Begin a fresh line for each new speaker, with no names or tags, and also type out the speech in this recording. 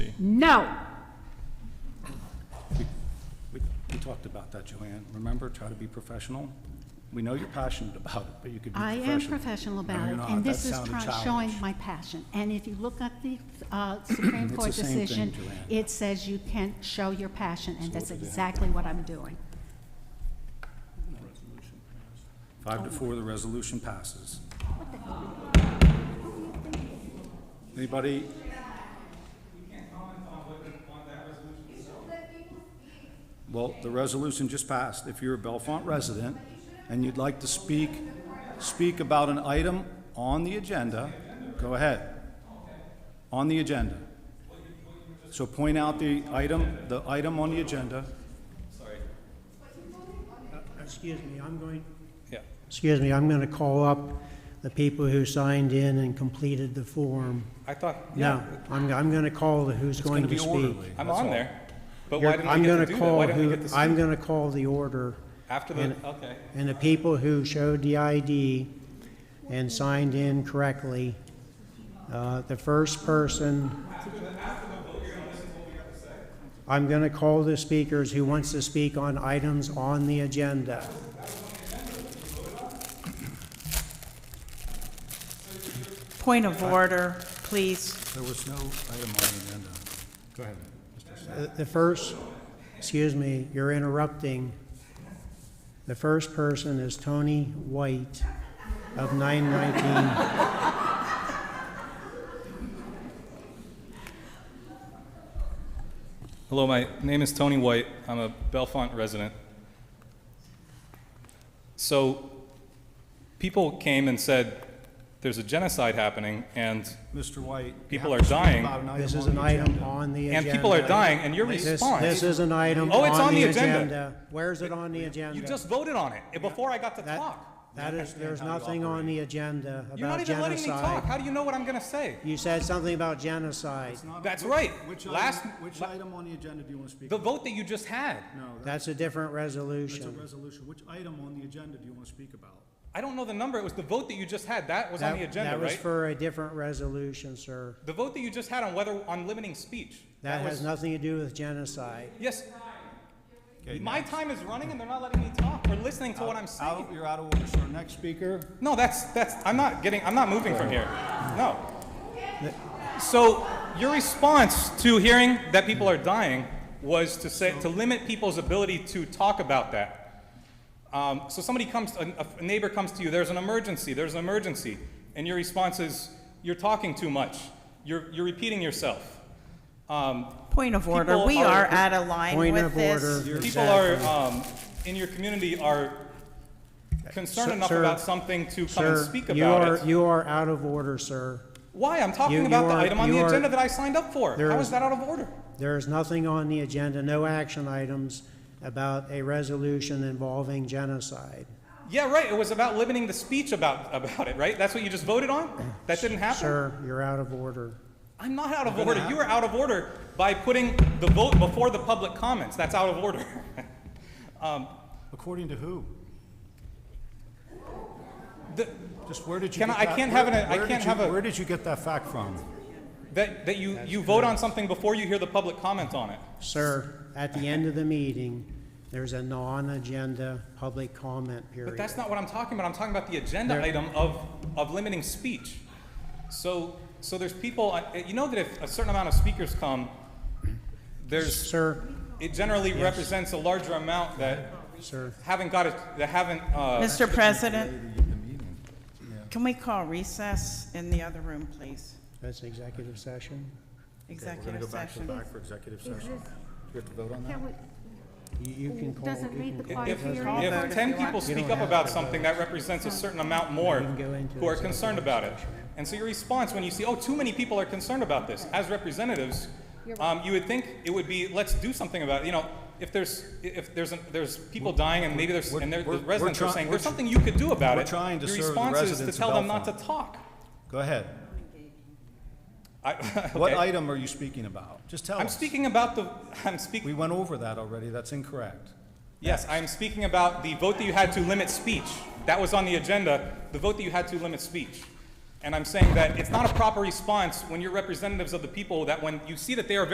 No.
We- We we talked about that, Joanne. Remember, try to be professional. We know you're passionate about it, but you could be
I
professional.
am professional
No,
about
you're
it,
not.
and
That
this is
sounded
try-
childish.
showing my passion. And if you look at the uh, Supreme
It's
Court
the same thing,
decision,
Joanne.
it says you can show your passion, and that's exactly what I'm doing.
Five to four, the resolution passes. Anybody? Well, the resolution just passed. If you're a Bellefonte resident and you'd like to speak, speak about an item on the agenda, go ahead. On the agenda. So point out the item, the item on the agenda.
Excuse me, I'm going,
Yeah.
excuse me, I'm going to call up the people who signed in and completed the form.
I thought,
No,
yeah,
I'm, I'm going to call the who's
It's going to
to
be
speak.
orderly.
I'm
that's
on
all.
there. But why didn't I
I'm
get to
going
do
to
that? Why
call
didn't I
who,
get to
I'm
see?
going to call the order.
After the,
and-
okay.
And the people who showed the ID and signed in correctly, uh, the first person. I'm going to call the speakers who wants to speak on items on the agenda.
Point of order, please.
There was no item on the agenda. Go ahead, Mr. Sa-
Uh, The the first, excuse me, you're interrupting. The first person is Tony White of 919.
Hello, my name is Tony White. I'm a Bellefonte resident. So people came and said, there's a genocide happening and,
Mr. White. you
People
have
are
to speak
dying.
about item
This is
on
an
the
item
agenda.
on the
and
agenda.
people are dying and your
This- This
response,
is an item
Oh, it's
on the agenda. Where's it on the
you
agenda?
just voted on it eh, before I got to
That-
talk.
That is, there's nothing on the agenda
You're not
about
even letting me talk.
genocide.
How do you know what I'm gonna say?
You said something about genocide.
That's right.
Which
Last-
item, which
la-
item on the agenda do you want to speak?
The
about?
vote that you just had.
No, that-
That's a different
that's a
resolution.
resolution. Which item on the agenda do you want to speak about?
I don't know the number. It was the vote that you just had. That was on
That-
the agenda,
That was
right?
for a different resolution, sir.
The vote that you just had on whether, on limiting speech.
That
was-
has nothing to do with genocide.
Yes,
Okay,
my time is running and they're not letting me talk or listening to what I'm
Out,
saying.
you're out of order, sir. Next speaker.
No, that's, that's, I'm not getting, I'm not moving from here. No. So your response to hearing that people are dying was to say, to limit people's ability to talk about that. Um, so somebody comes, a, a neighbor comes to you, there's an emergency, there's an emergency. And your response is, you're talking too much. You're, you're repeating yourself. Um,
Point of order. We
are-
are out of line
Point
with
of
this.
order.
People are, um, in your community are concerned
Sir-
enough
sir-
about something to come and
Sir,
speak
you are,
about it.
you are out of order, sir.
Why? I'm talking
you-
about
you
the
are-
item on the
you are-
agenda that I signed up for.
There
How
is-
is that out of order?
There is nothing on the agenda, no action items about a resolution involving genocide.
Yeah, right, it was about limiting the speech about, about it, right? That's what you just voted on? That didn't happen?
Sir, you're out of order.
I'm not out of order. You are out of order by putting the vote before the public comments. That's out of order.
According to who?
The-
Just where did you?
Can
get
I- I
that-
can't have an-
where-
I
where did
can't
you-
have a-
Where did you get that fact from?
That, that you, you vote on something before you hear the public comment on it.
Sir, at the end of the meeting, there's a non-agenda public comment
But
period.
that's not what I'm talking about. I'm talking about the agenda
There-
item of, of limiting speech. So, so there's people, uh, you know that if a certain amount of speakers come, there's,
Sir,
it generally represents a larger amount that
sir,
haven't got it, that haven't, uh,
Mr. President, can we call recess in the other room, please?
that's executive session.
Executive session.
for executive session. Do we have to vote on that?
Can we-
You you can call,
Doesn't
you
read
can
the
call.
quiet
if,
period.
if ten people
You
speak
don't
up
have
about
to
something, that represents a certain amount more
You can go into
who are
executive
concerned about it.
session.
And so your response when you see, oh, too many people are concerned about this, as representatives, um, you would think it would be, let's do something about it, you know, if there's, if there's, an- there's people dying and maybe there's,
we're-
and there- the
we're- we're
residents are
try-
saying,
we're
there's something you could do about it.
we're trying to serve the
Your response is
residents
to
of
tell them not to
Bellefonte.
talk.
Go ahead.
I-
What
okay.
item are you speaking about? Just tell us.
I'm speaking about the, I'm
We
speaking,
went over that already. That's incorrect.
yes, I'm speaking about the vote that you had to limit speech. That was on the agenda, the vote that you had to limit speech. And I'm saying that it's not a proper response when you're representatives of the people, that when you see that they are very